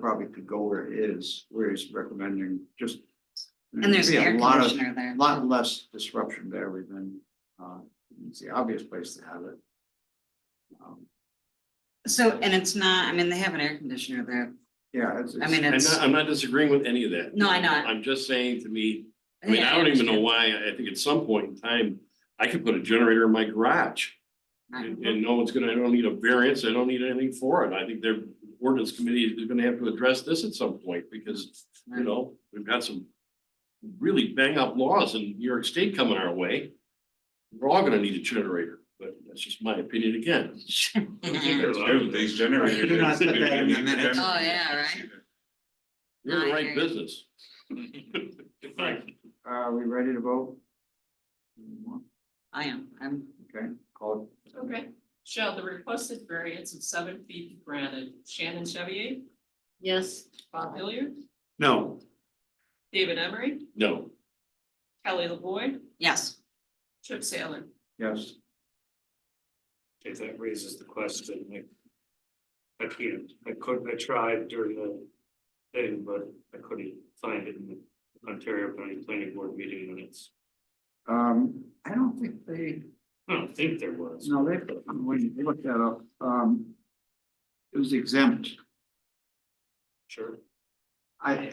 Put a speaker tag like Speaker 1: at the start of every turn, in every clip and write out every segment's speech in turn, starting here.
Speaker 1: probably could go where it is, where he's recommending just.
Speaker 2: And there's an
Speaker 1: be a
Speaker 2: air
Speaker 1: lot of-
Speaker 2: conditioner there.
Speaker 1: A lot less disruption to everything. Uh, it's the obvious place to have it. Um,
Speaker 2: So, and it's not, I mean, they have an air conditioner there.
Speaker 1: Yeah, it's.
Speaker 2: I mean,
Speaker 1: it's-
Speaker 2: it-
Speaker 3: I'm
Speaker 2: It's-
Speaker 3: not, I'm not disagreeing with any of that.
Speaker 2: No, I know.
Speaker 3: I'm just saying to me, I mean, I don't even know why, I think at some point in time, I could put a generator in my garage. And, and no one's gonna, I don't need a variance, I don't need anything for it, I think their ordinance committee is gonna have to address this at some point, because, you know, we've got some. Really bang up laws in New York State coming our way, we're all gonna need a generator, but that's just my opinion again.
Speaker 4: There's a lot of These generators.
Speaker 1: Do not put that in the minutes.
Speaker 2: Oh, yeah, right.
Speaker 3: You're in the
Speaker 2: I
Speaker 3: right
Speaker 2: hear you.
Speaker 3: business.
Speaker 1: Are Uh, we ready to vote?
Speaker 2: I am, I'm,
Speaker 1: Okay, call
Speaker 5: Okay, shall the requested variance of seven feet be granted? Shannon Chevy,
Speaker 2: yes,
Speaker 5: Bob Hilliard,
Speaker 1: No.
Speaker 5: David Emery,
Speaker 3: No,
Speaker 5: Kelly LaVoy,
Speaker 2: yes.
Speaker 5: Chip Saylor.
Speaker 1: Yes,
Speaker 6: Okay, that raises the question, like. I can't, I could, I tried during the thing, but I couldn't find it in the Ontario County Planning Board meeting minutes.
Speaker 1: um, I don't think they,
Speaker 6: I don't think there was.
Speaker 1: no, they, when you look that up, um. It was exempt.
Speaker 6: Sure.
Speaker 1: I,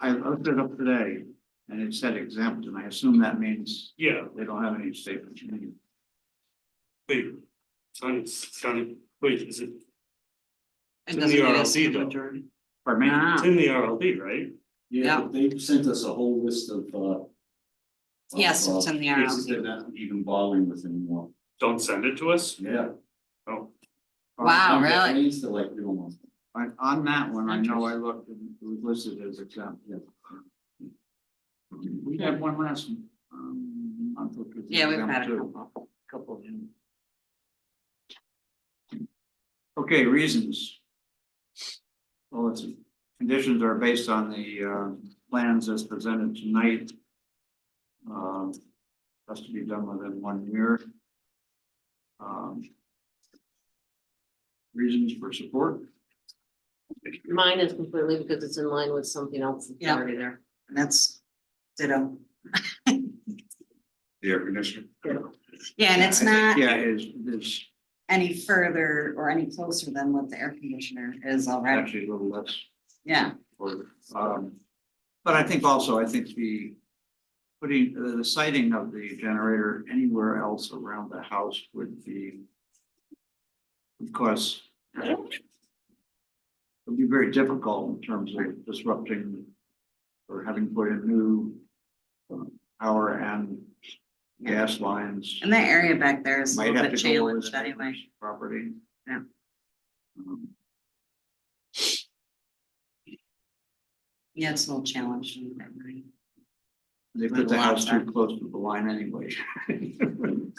Speaker 1: I looked it up today and it said exempt and I assume that means
Speaker 6: Yeah,
Speaker 1: they don't have any statements.
Speaker 6: wait, sounded, sounded, wait, is it,
Speaker 2: It
Speaker 6: In the
Speaker 2: doesn't give us-
Speaker 6: RLC though.
Speaker 1: Pardon me?
Speaker 6: it's
Speaker 2: Ah,
Speaker 6: in the RLD, right?
Speaker 2: Yeah.
Speaker 7: Yeah, they sent us a whole list of, uh.
Speaker 2: Yes,
Speaker 7: of,
Speaker 2: it's in the
Speaker 7: uh,
Speaker 2: RLD.
Speaker 7: Cases they're not even bothering with anymore,
Speaker 6: Don't send it to us?
Speaker 7: yeah.
Speaker 2: Wow,
Speaker 1: On-
Speaker 2: really?
Speaker 7: It's the like, we don't want.
Speaker 1: On, on that one, I know I looked and it was listed as exempt.
Speaker 7: Yeah.
Speaker 1: We had one last, um, month. which was
Speaker 2: Yeah, we've had
Speaker 1: exempt,
Speaker 2: a
Speaker 1: too.
Speaker 2: couple.
Speaker 1: couple of them. Okay, reasons. Well, it's, conditions are based on the uh, plans as presented tonight. Um, Has to be done within one year. Um, Reasons for support,
Speaker 8: Mine is completely because it's in line with something else that's
Speaker 2: Yeah.
Speaker 8: already there.
Speaker 2: That's ditto.
Speaker 4: The air conditioner.
Speaker 2: Yeah, and it's not
Speaker 1: yeah, is, is
Speaker 2: any further or any closer than what the air conditioner is already.
Speaker 1: actually a little less.
Speaker 2: Yeah,
Speaker 1: or, um, but I think also, I think the putting, uh, the sighting of the generator anywhere else around the house would be of course it'd be very difficult in terms of disrupting or having put in new um, power and gas lines.
Speaker 2: and that area back there is a
Speaker 1: Might
Speaker 2: little
Speaker 1: have
Speaker 2: bit
Speaker 1: to go over
Speaker 2: challenged
Speaker 1: the
Speaker 2: anyway.
Speaker 1: neighbor's property.
Speaker 2: Yeah.
Speaker 1: Um,
Speaker 2: Yeah, it's a little challenged. in that way.
Speaker 1: They
Speaker 2: With
Speaker 1: put the house
Speaker 2: lots
Speaker 1: too
Speaker 2: of-
Speaker 1: close to the line anyway.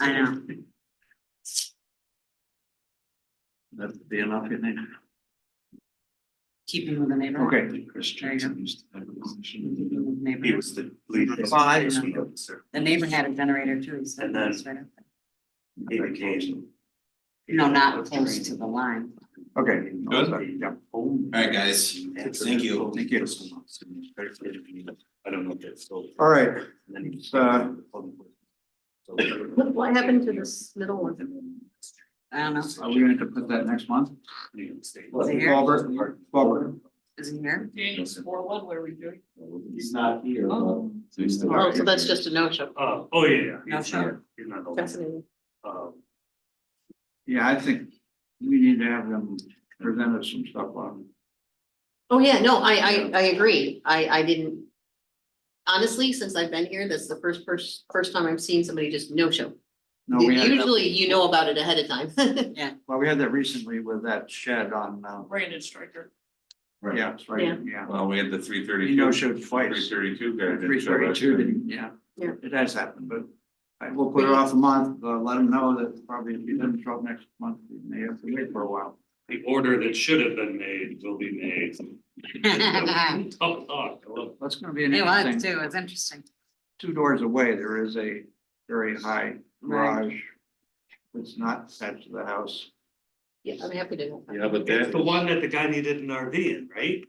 Speaker 2: I know.
Speaker 1: That'd be enough, you think?
Speaker 2: Keeping with the neighbor.
Speaker 1: Okay.
Speaker 2: There you go. Keeping with the neighbor.
Speaker 4: He was the lead.
Speaker 2: Five.
Speaker 4: enforcement officer.
Speaker 2: The neighbor had a generator too, he said.
Speaker 6: And then-
Speaker 2: that's right.
Speaker 6: He became.
Speaker 2: No, not close to the line.
Speaker 1: Okay.
Speaker 4: Good.
Speaker 1: Yeah.
Speaker 4: All right, guys, thank you.
Speaker 1: Thank you.
Speaker 6: I don't know if that's still.
Speaker 1: All right,
Speaker 6: And then he-
Speaker 1: Uh,
Speaker 8: What, what happened to this middle one?
Speaker 2: I don't know,
Speaker 1: are we going to put that next month?
Speaker 2: Is it here?
Speaker 1: Robert, Robert,
Speaker 2: is he here?
Speaker 5: Daniel Sporlund, where are we doing?
Speaker 7: He's not here, but.
Speaker 5: Oh,
Speaker 7: So he's still.
Speaker 8: Oh, so that's just a no-show.
Speaker 6: Uh, oh, yeah, yeah.
Speaker 2: No,
Speaker 6: he's
Speaker 2: sure.
Speaker 6: not- He's not. the-
Speaker 8: Fascinating.
Speaker 6: Uh,
Speaker 1: yeah, I think we need to have them present us some stuff on.
Speaker 8: Oh, yeah, no, I, I, I agree. I, I didn't. Honestly, since I've been here, that's the first, first, first time I've seen somebody just no-show.
Speaker 1: No, we had, that-
Speaker 8: Usually you know about it ahead of time.
Speaker 1: well, we had that recently with that shed on, uh,
Speaker 5: Brandon Stryker.
Speaker 1: yeah, it's right, yeah.
Speaker 4: Well, we had the three thirty.
Speaker 1: You know, showed
Speaker 4: Three
Speaker 1: twice,
Speaker 4: thirty-two guy. that
Speaker 1: three
Speaker 4: showed up.
Speaker 1: thirty-two, yeah.
Speaker 8: Yeah.
Speaker 1: It has happened, but I will put it off a month, uh, let them know that probably if you didn't show up next month, you may have to wait for a while.
Speaker 6: The order that should have been made will be made.
Speaker 2: Yeah,
Speaker 6: Tough talk. I love it.
Speaker 1: That's gonna be an
Speaker 2: It was
Speaker 1: interesting,
Speaker 2: too, it's interesting.
Speaker 1: two doors away, there is a very high
Speaker 2: Right.
Speaker 1: garage. It's not attached to the house.
Speaker 8: Yeah, I'm happy to. know.
Speaker 3: Yeah, but that.
Speaker 6: It's the one that the guy needed an RV in, right?